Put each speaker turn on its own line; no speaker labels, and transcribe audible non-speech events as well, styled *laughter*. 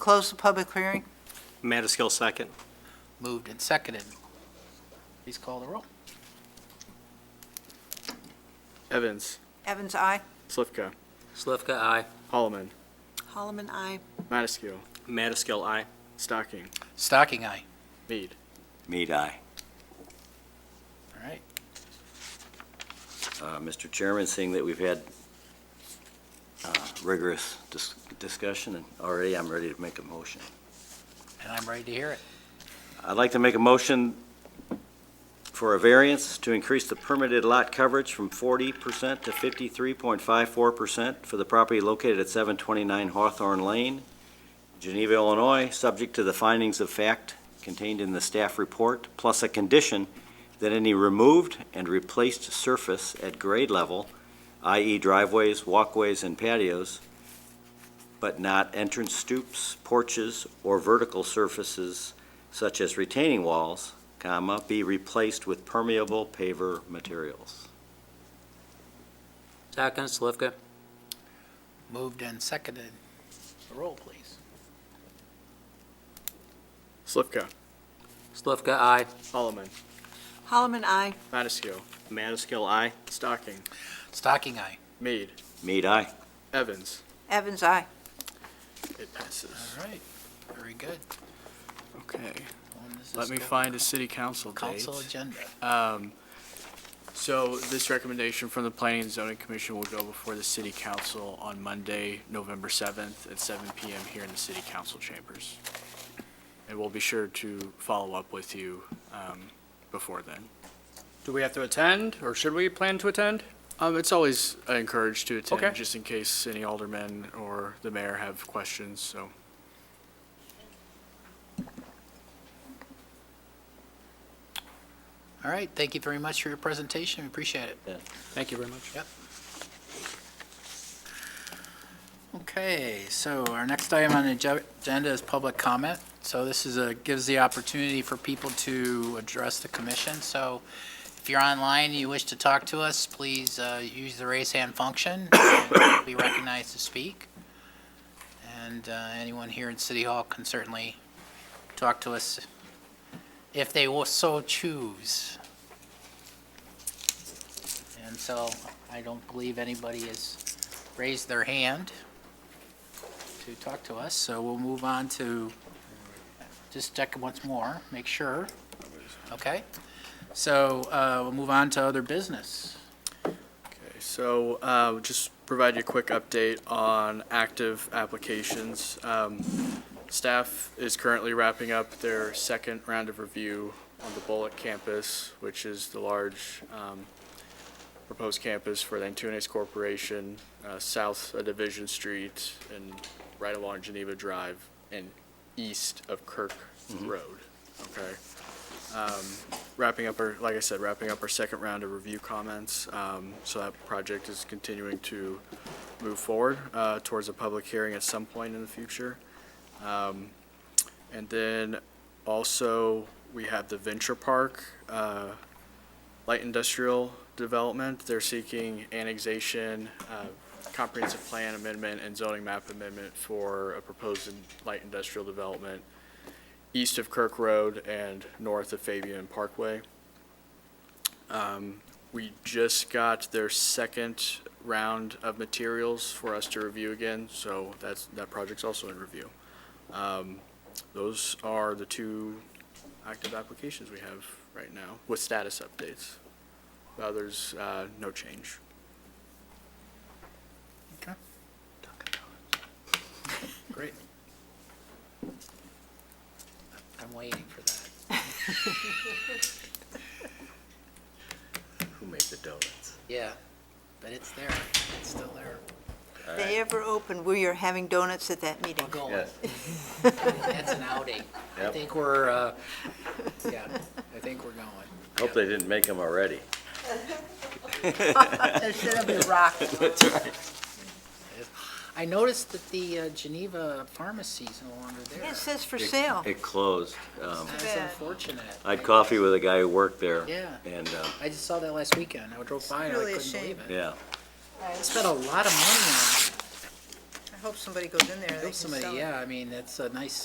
Close the public hearing?
Madaskil, second.
Moved and seconded. Please call the roll.
Evans,
Evans, aye.
Slivka,
Slivka, aye.
Holloman,
Holloman, aye.
Mataskill,
Madaskil, aye.
Stocking,
Stocking eye.
Mead.
Mead, aye.
All right.
Uh, Mr. Chairman, seeing that we've had uh, rigorous dis- discussion and already, I'm ready to make a motion.
And I'm ready to hear it.
I'd like to make a motion for a variance to increase the permitted lot coverage from 40% to 53.54% for the property located at 729 Hawthorne Lane, Geneva, Illinois, subject to the findings of fact contained in the staff report, plus a condition that any removed and replaced surface at grade level, i.e. driveways, walkways, and patios, but not entrance stoops, porches, or vertical surfaces such as retaining walls, comma, be replaced with permeable paver materials.
Second, Slivka.
Moved and seconded. The roll, please.
Slivka,
Slivka, aye.
Holloman,
Holloman, aye.
Mataskill,
Madaskil, aye.
Stocking,
Stocking eye.
Mead,
Mead, aye.
Evans.
Evans, aye.
It passes.
All right. Very good.
Okay,
On this
let
is
me
go-
find a city council date.
Council agenda.
Um, So this recommendation from the Planning and Zoning Commission will go before the city council on Monday, November 7th at 7 PM here in the city council chambers. And we'll be sure to follow up with you um, before then.
Do we have to attend, or should we plan to attend?
Um, It's always encouraged to
Okay.
attend, just in case any aldermen or the mayor have questions, so.
All right. Thank you very much for your presentation. We appreciate it.
Thank you very much.
Okay, so our next item on the ag- agenda is public comment. So this is a, gives the opportunity for people to address the commission. So if you're online and you wish to talk to us, please uh, use the raise hand function. and Be recognized to speak. And uh, anyone here in City Hall can certainly talk to us if they will so choose. And so I don't believe anybody has raised their hand to talk to us, so we'll move on to, just check once more, make sure. Okay? So uh, we'll move on to other business.
Okay, so uh, just provide you a quick update on active applications. Um, Staff is currently wrapping up their second round of review on the Bullock campus, which is the large um, proposed campus for the Antunes Corporation, uh, south of Division Street and right along Geneva Drive and east of Kirk Road, okay? wrapping up our, like I said, wrapping up our second round of review comments. Um, So that project is continuing to move forward uh, towards a public hearing at some point in the future. Um, And then also, we have the Venture Park uh, Light Industrial Development. They're seeking annexation, uh, comprehensive plan amendment, and zoning map amendment for a proposed in- light industrial development east of Kirk Road and north of Fabian Parkway. Um, We just got their second round of materials for us to review again, so that's, that project's also in review. Um, Those are the two active applications we have right now with status updates. Others, uh, no change.
Great. I'm waiting for that.
*laughs* Who made the donuts?
Yeah, but it's there. It's still there.
They ever open, we are having donuts at that meeting.
We're going.
Yes.
*laughs* That's an outing. I
Yep.
think we're, uh, yeah, I think we're going.
Hope they didn't make them already.
It's gonna be
*laughs*
rocked.
I noticed that the uh, Geneva pharmacy's no longer there.
It says for sale.
It closed. Um,
That's unfortunate.
I had coffee with a guy who worked there.
Yeah.
And, uh,
I just saw that last weekend. I drove by and I
really a
couldn't believe it.
yeah,
Spent a lot of money on
hope somebody goes in there and they can
Help
sell it.
somebody, yeah, I mean, it's a nice